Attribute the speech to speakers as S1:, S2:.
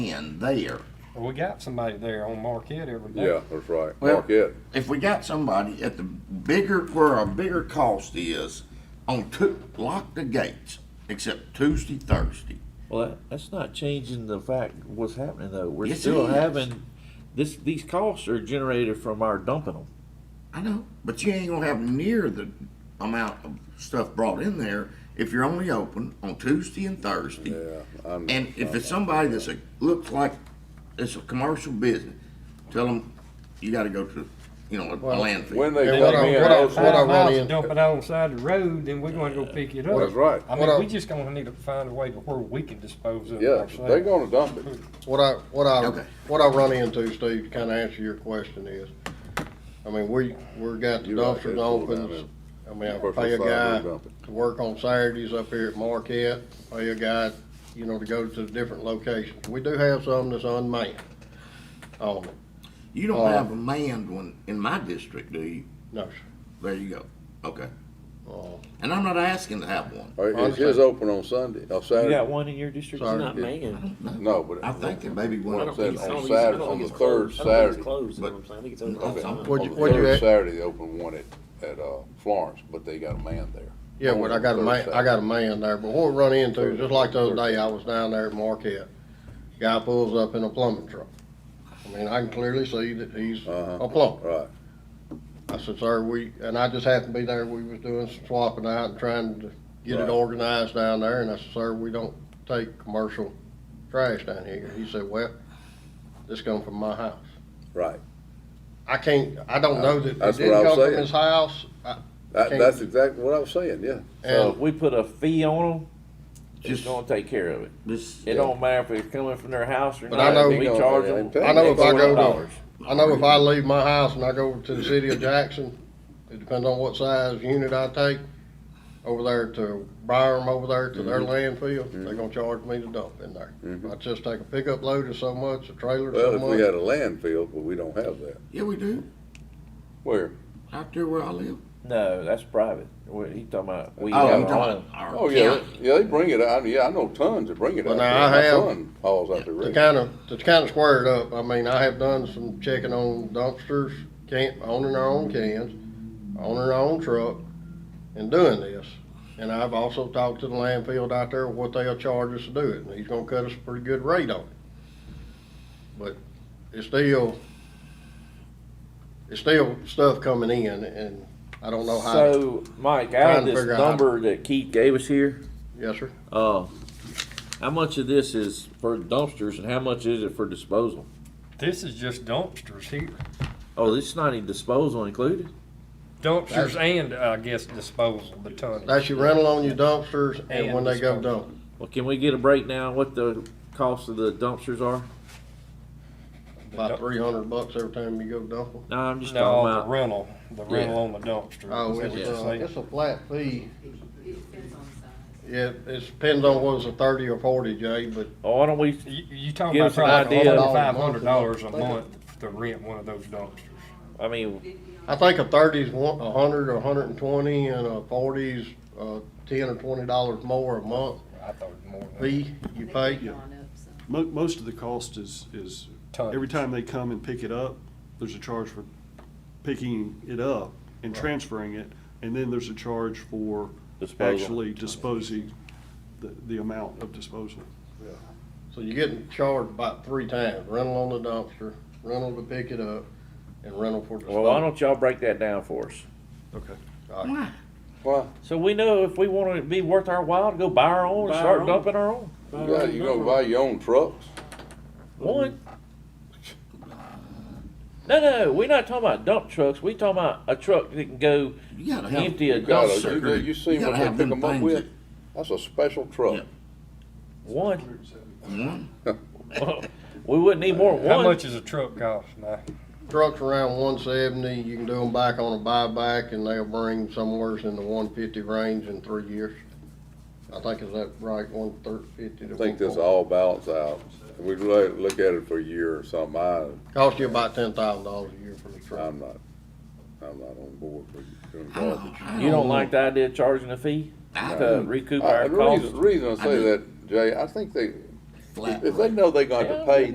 S1: in there.
S2: Well, we got somebody there on Marquette every day.
S3: Yeah, that's right.
S1: Well-
S3: Marquette.
S1: If we got somebody at the bigger, where our bigger cost is, on two, lock the gates, except Tuesday, Thursday.
S4: Well, that, that's not changing the fact what's happening though. We're
S1: Yes, it
S4: still
S1: is.
S4: having this. These costs are generated from our dumping them.
S1: I know, but you ain't gonna have near the amount of stuff brought in there if you're only open on Tuesday and Thursday.
S3: Yeah, I'm-
S1: And if it's somebody that's a, looks like it's a commercial business, tell them you gotta go to, you know, a landfill.
S3: When they
S5: Hey,
S3: come
S5: what I-
S3: in,
S5: what I-
S3: those
S5: what I
S3: ones-
S2: Five
S5: run
S2: miles
S5: in-
S2: and dump it out on the side of the road, then we're gonna go pick it up.
S3: That's right.
S2: I
S5: What I-
S2: mean, we just gonna need to find a way to where we can dispose of it
S3: yeah,
S2: ourselves.
S3: they're gonna dump it.
S5: What I, what
S1: Okay.
S5: I, what I run into, Steve, to kind of answer your question is, I mean, we, we're got the
S3: You're right,
S5: dumpsters
S3: it's all down
S5: open. I mean, I
S3: Personal
S5: pay a
S3: side,
S5: guy
S3: we dump it.
S5: to work on Saturdays up here at Marquette, pay a guy, you know, to go to different locations. We do have some that's unmanned on it.
S1: You don't
S5: Uh,
S1: have a manned one in my district, do you?
S5: No, sir.
S1: There you go. Okay.
S5: Uh,
S1: And I'm not asking to have one.
S3: All right, Is his open on Sunday, on
S4: You got
S3: Saturday?
S4: one in your district?
S5: Sorry.
S6: Not man.
S3: No, but.
S1: I think there may be
S6: I
S1: one
S6: don't
S1: upset.
S6: think it's- I
S3: on
S6: don't think it's- I
S3: Saturday,
S6: don't
S3: on
S6: think
S3: the
S6: it's
S3: third
S6: closed. I don't think
S3: Saturday.
S6: it's closed, is what
S1: But-
S6: I'm saying. I think it's
S1: Okay.
S6: open.
S1: I'm-
S5: What'd
S3: On
S5: you-
S3: the
S5: what'd you
S3: third
S5: ask?
S3: Saturday, they opened one at, at, uh, Florence, but they got a man there.
S5: Yeah, but I got a man, I got a man there, but what we run into, just like the other day, I was down there at Marquette. Guy pulls up in a plumbing truck. I mean, I can clearly see that he's
S3: Uh-huh.
S5: a plumber.
S3: Right,
S5: I said, sir, we, and I just happened to be there, we was doing some swapping out and trying to get
S3: Right.
S5: it organized down there, and I said, sir, we don't take commercial trash down here. He said, well, this come from my house.
S3: right.
S5: I can't, I don't know that it
S3: That's what I
S5: didn't
S3: was
S5: come from
S3: saying.
S5: his house. I-
S3: That,
S5: Can't-
S3: that's exactly what I was saying, yeah.
S4: So
S5: And
S4: if we put a fee on them, it's
S1: Just-
S4: gonna take care of it.
S1: This,
S4: It don't matter if it's coming from their house or
S5: But
S4: not.
S5: I know-
S4: we charge
S3: I
S4: them.
S3: know
S5: if I go to-
S4: $12.
S5: I know if I leave my house and I go to the city of Jackson, it depends on what size unit I take, over there to Byram, over there to their
S3: Mm-hmm.
S5: landfill, they're gonna charge me to dump in there. I just take a pickup load of so much, a trailer
S3: Well,
S5: so
S3: if we
S5: much.
S3: had a landfill, but we don't have that.
S1: yeah, we do.
S3: Where?
S1: Out there where I live.
S4: No, that's private. What he talking about? We
S1: Oh,
S4: have
S1: you
S4: our own.
S1: don't. Our
S3: Oh, yeah,
S1: county.
S3: yeah, they bring it out, yeah, I know tons that bring it
S5: Well,
S3: out. there.
S5: now, I
S3: My
S5: have-
S3: son Hauls out there.
S5: To
S3: regularly.
S5: kinda, to kinda square it up, I mean, I have done some checking on dumpsters, can, owning our own cans, owning our own truck, and doing this. And I've also talked to the landfill out there, what they'll charge us to do it, and he's gonna cut us a pretty good rate on it. But it's still, it's still stuff coming in, and I don't know how, to-
S4: So, Mike, out
S5: Trying
S4: of
S5: to
S4: this
S5: figure out how-
S4: number that Keith gave us here,
S5: yes, sir?
S4: uh, how much of this is for dumpsters and how much is it for disposal?
S2: This is just dumpsters here.
S4: Oh, this is not even disposal included?
S2: Dumpsters and, I guess, disposal, the tonnage.
S5: That's your rental on your dumpsters and
S2: And
S5: when they go
S2: disposal.
S5: dump.
S4: Well, can we get a breakdown what the cost of the dumpsters are?
S5: About three hundred bucks every time you go dump them.
S4: No, I'm just talking
S2: No, the
S4: about,
S2: rental, the rental on the dumpster.
S5: Oh,
S2: is that
S5: it's,
S2: what you're
S5: uh,
S2: saying?
S5: it's a flat fee.
S7: depends on size.
S5: Yeah, it depends on whether it's a thirty or forty, Jay, but
S4: oh, why don't we,
S2: You, you talking
S4: Give
S2: about
S4: us an
S2: probably
S4: idea.
S2: forty-five hundred dollars a month to rent one of those dumpsters.
S4: I mean,
S5: I think a thirty's one, a hundred or a hundred and twenty, and a forty's, uh, ten or twenty dollars more a month
S2: I thought it was more than
S5: fee you pay.
S7: They've gone up some.
S8: Mo- most of the cost is, is,
S2: Tons.
S8: every time they come and pick it up, there's a charge for picking it up and transferring it, and then there's a charge for
S4: Disposal.
S8: actually disposing, the, the amount of disposal.
S5: So you're getting charged about three times, rental on the dumpster, rental to pick it up, and rental for
S4: well, why
S5: disposal.
S4: don't y'all break that down for us?
S8: Okay.
S1: Why?
S3: Well,
S4: So we know if we want it to be worth our while to go buy our own and
S6: Buy our
S4: start
S6: own.
S4: dumping our own.
S3: yeah, you gonna buy your own trucks?
S4: One. No, no, we're not talking about dump trucks. We talking about a truck that can go
S1: You gotta have.
S4: empty a
S1: you gotta-
S4: dumpster.
S3: You, do- you
S1: You
S3: seen
S1: gotta
S3: what they
S1: have
S3: pick
S1: them
S3: them up
S1: things
S3: with? That's a special truck.
S4: One.
S1: One.
S4: Well, we wouldn't need more than
S2: How
S4: one.
S2: much is a truck cost, Mike?
S5: Trucks around one seventy, you can do them back on a buyback, and they'll bring somewhere in the one fifty range in three years. I think is that right, one thirty, fifty to
S3: I
S5: one forty?
S3: think this all balance out. We look, look at it for a year or something. I,
S5: Cost you about ten thousand dollars a year for the truck.
S3: I'm not, I'm not on board for doing
S1: I don't-
S3: garbage.
S1: I
S4: You don't like the idea of charging a fee
S1: Oh. I
S4: to recoup
S3: I-
S4: our
S3: the
S4: costs?
S3: reason, reason I
S1: I
S3: say
S1: do.
S3: that, Jay, I think they,
S1: flat
S3: If they know they got to pay